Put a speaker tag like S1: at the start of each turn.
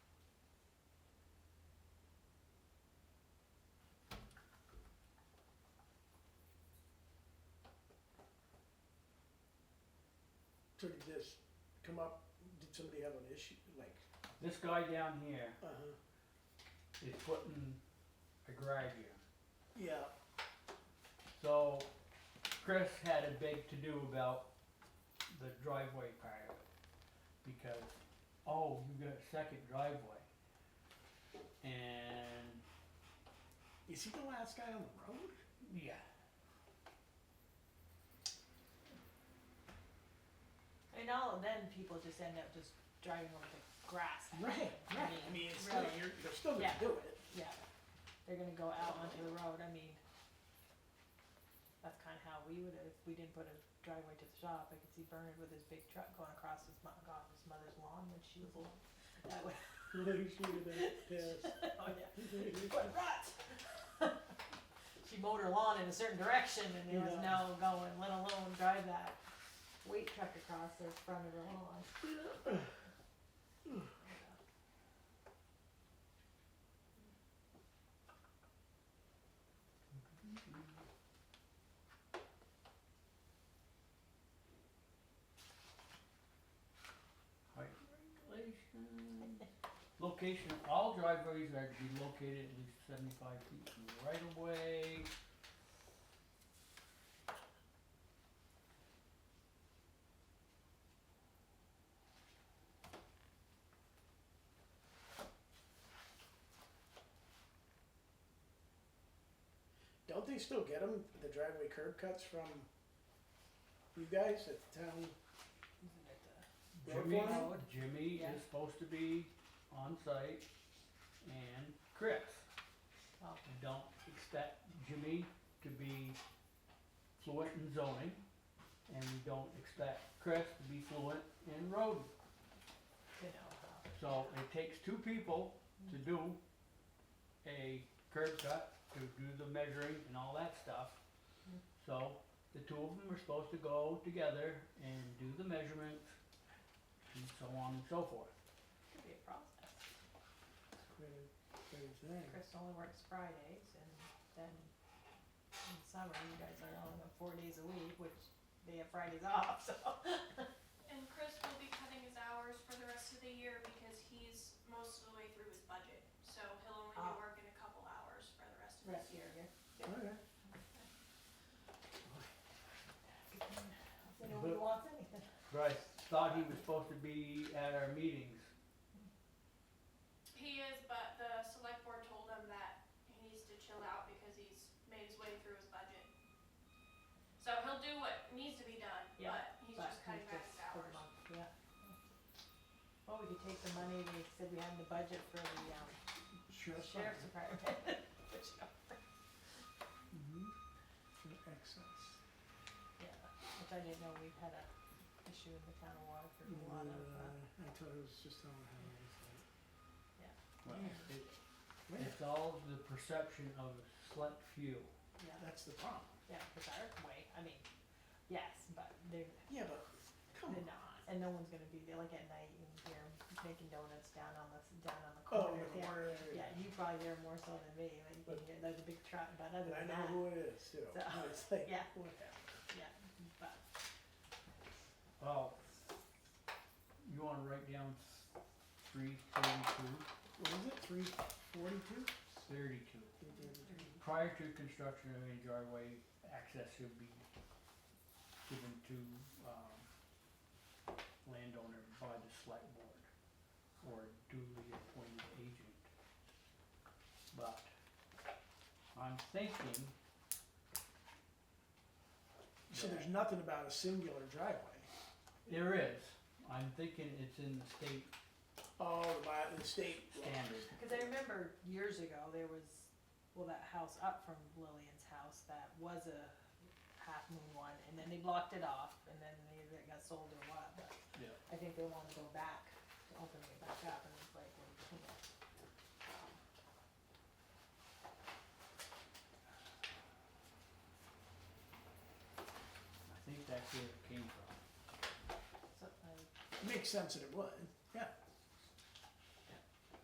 S1: took this, come up, did somebody have an issue, like,
S2: This guy down here
S1: uh-huh,
S2: is putting a garage here.
S1: yeah,
S2: So Chris had a big to do about the driveway part of it because, oh, you got a second driveway. And
S1: is he the last guy on the road?
S2: yeah,
S3: And all of then people just end up just driving over the grass.
S1: Right, right, I mean, it's still,
S3: Really?
S1: you're, they're still gonna
S3: Yeah.
S1: do it,
S3: Yeah. They're gonna go out onto the road, I mean, that's kinda how we would, if we didn't put a driveway to the shop, I could see Bernard with his big truck going across his mo- God, his mother's lawn when she was little. That would,
S1: Like, she would have, yes.
S3: oh yeah, what rot! She mowed her lawn in a certain direction and there was
S1: Yeah.
S3: no going, let alone drive that weight truck across the front of her lawn.
S2: height regulations. Location, all driveways are to be located at least seventy-five feet from the right of way.
S1: Don't they still get them, the driveway curb cuts from you guys at the town?
S3: Isn't it, uh,
S1: Road
S2: Jimmy,
S1: foreman?
S2: Jimmy
S3: Yeah.
S2: is supposed to be on site and Chris.
S3: well,
S2: I don't expect Jimmy to be fluent in zoning, and we don't expect Chris to be fluent in road.
S3: you know, how
S2: So it takes two people to do a curb cut, to do the measuring and all that stuff. So the two of them are supposed to go together and do the measurements and so on and so forth.
S3: it could be a process.
S1: Quite a- quite a thing.
S3: Chris only works Fridays and then in summer, you guys are only on four days a week, which they have Fridays off, so.
S4: And Chris will be cutting his hours for the rest of the year because he's most of the way through his budget. So he'll only be
S3: Ah.
S4: working a couple hours for the rest of
S3: Rest
S4: this
S3: of
S4: year.
S3: the year.
S1: Alright,
S3: So nobody
S2: But-
S3: wants anything.
S2: Right. Thought he was supposed to be at our meetings.
S4: He is, but the select board told him that he needs to chill out because he's made his way through his budget. So he'll do what needs to be done,
S3: Yeah,
S4: but he's
S3: but
S4: just cutting back his
S3: for the
S4: hours.
S3: month, yeah. Well, we could take the money they said we had in the budget for the um,
S1: sure,
S3: sheriff's
S1: something,
S3: department, which,
S1: Mm-hmm. excess.
S3: yeah, which I didn't know we had a issue in the town of Waterford, a lot of, uh,
S1: Uh, I thought it was just on how it is, like,
S2: Well,
S1: Yeah.
S2: it-
S1: Well,
S2: It's all the perception of a select few.
S3: yeah,
S1: that's the problem.
S3: yeah, the dark way, I mean, yes, but they're,
S1: Yeah, but come
S3: They're
S1: on.
S3: not, and no one's gonna be there, like at night, you can hear 'em making donuts down on the, s- down on the
S1: Oh,
S3: corner
S1: yeah,
S3: there.
S1: word.
S3: Yeah, you probably hear more so than me, like, you
S1: But-
S3: can hear, there's a big truck, but other
S1: And I
S3: than
S1: know
S3: that,
S1: who it is too.
S3: So,
S1: No, It's like,
S3: yeah.
S1: what the-
S3: yeah, but,
S2: Well, Oh, you wanna write down three thirty-two,
S1: what is it, three forty-two?
S2: thirty-two. Prior to construction of any driveway, access should be given to, um, landowner by the select board or duly appointed agent. But I'm thinking
S1: So
S2: that-
S1: there's nothing about a singular driveway.
S2: There is. I'm thinking it's in the state
S1: Oh, by the state. law.
S2: standard.
S3: cause I remember years ago, there was, well, that house up from Lillian's house, that was a half moon one, and then they blocked it off, and then they, it got sold or what, but
S2: Yeah.
S3: I think they wanna go back, to opening it back up, and it's like, well, you can't.
S2: I think that's where it came from.
S3: So, I,
S1: Makes sense that it would.